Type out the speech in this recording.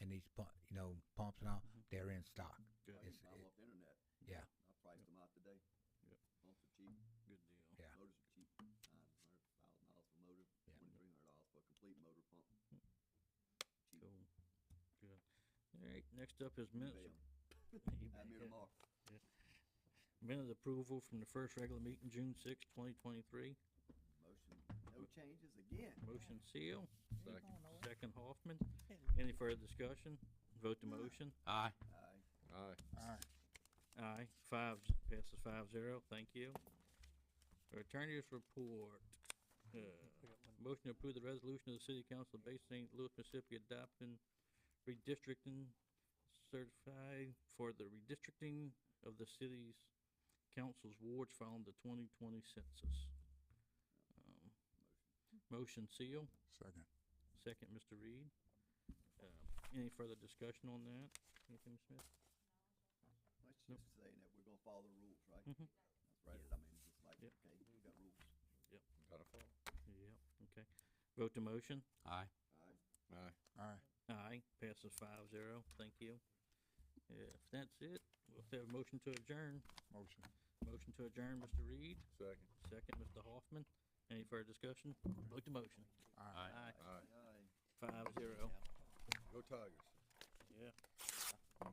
and these, pu- you know, pumps and all, Mm-hmm. they're in stock. Good, It's, I it- off the internet. yeah, I priced them out today. Yep. Pumps are cheap, good deal. Yeah. motors are cheap, nine hundred thousand Yeah. miles for motor, twenty-three hundred dollars for a complete motor pump. Cheap. Cool, good. All right, next up is minutes. Bam. You Have me bet. tomorrow. Minute approval from the first regular meeting, June sixth, twenty twenty-three. Motion, no changes again. Motion seal, Second. second Hoffman. Any further discussion? Vote the motion. Aye. Aye. Aye. Aye, five, passes five zero, thank you. Attorney's report. Uh, Motion to approve the resolution of the City Council of Bay St. Louis, Mississippi adopting redistricting certified for the redistricting of the city's council's wards following the twenty twenty census. Um, Motion seal, Second. second, Mr. Reed. Uh, Any further discussion on that? Anything, Smith? Let's Nope. just saying that we're gonna follow the rules, right? Mhm. That's right, I mean, just like, Yep. okay, we got rules. Yep, okay. Vote to motion? Aye. Aye. Aye. Aye. Aye, passes five zero, thank you. If that's it, we'll have a motion to adjourn. Motion. Motion to adjourn, Mr. Reed, Second. second, Mr. Hoffman. Any further discussion? Vote to motion. Aye. Aye, Aye. Aye. five zero. Go Tigers. Yeah.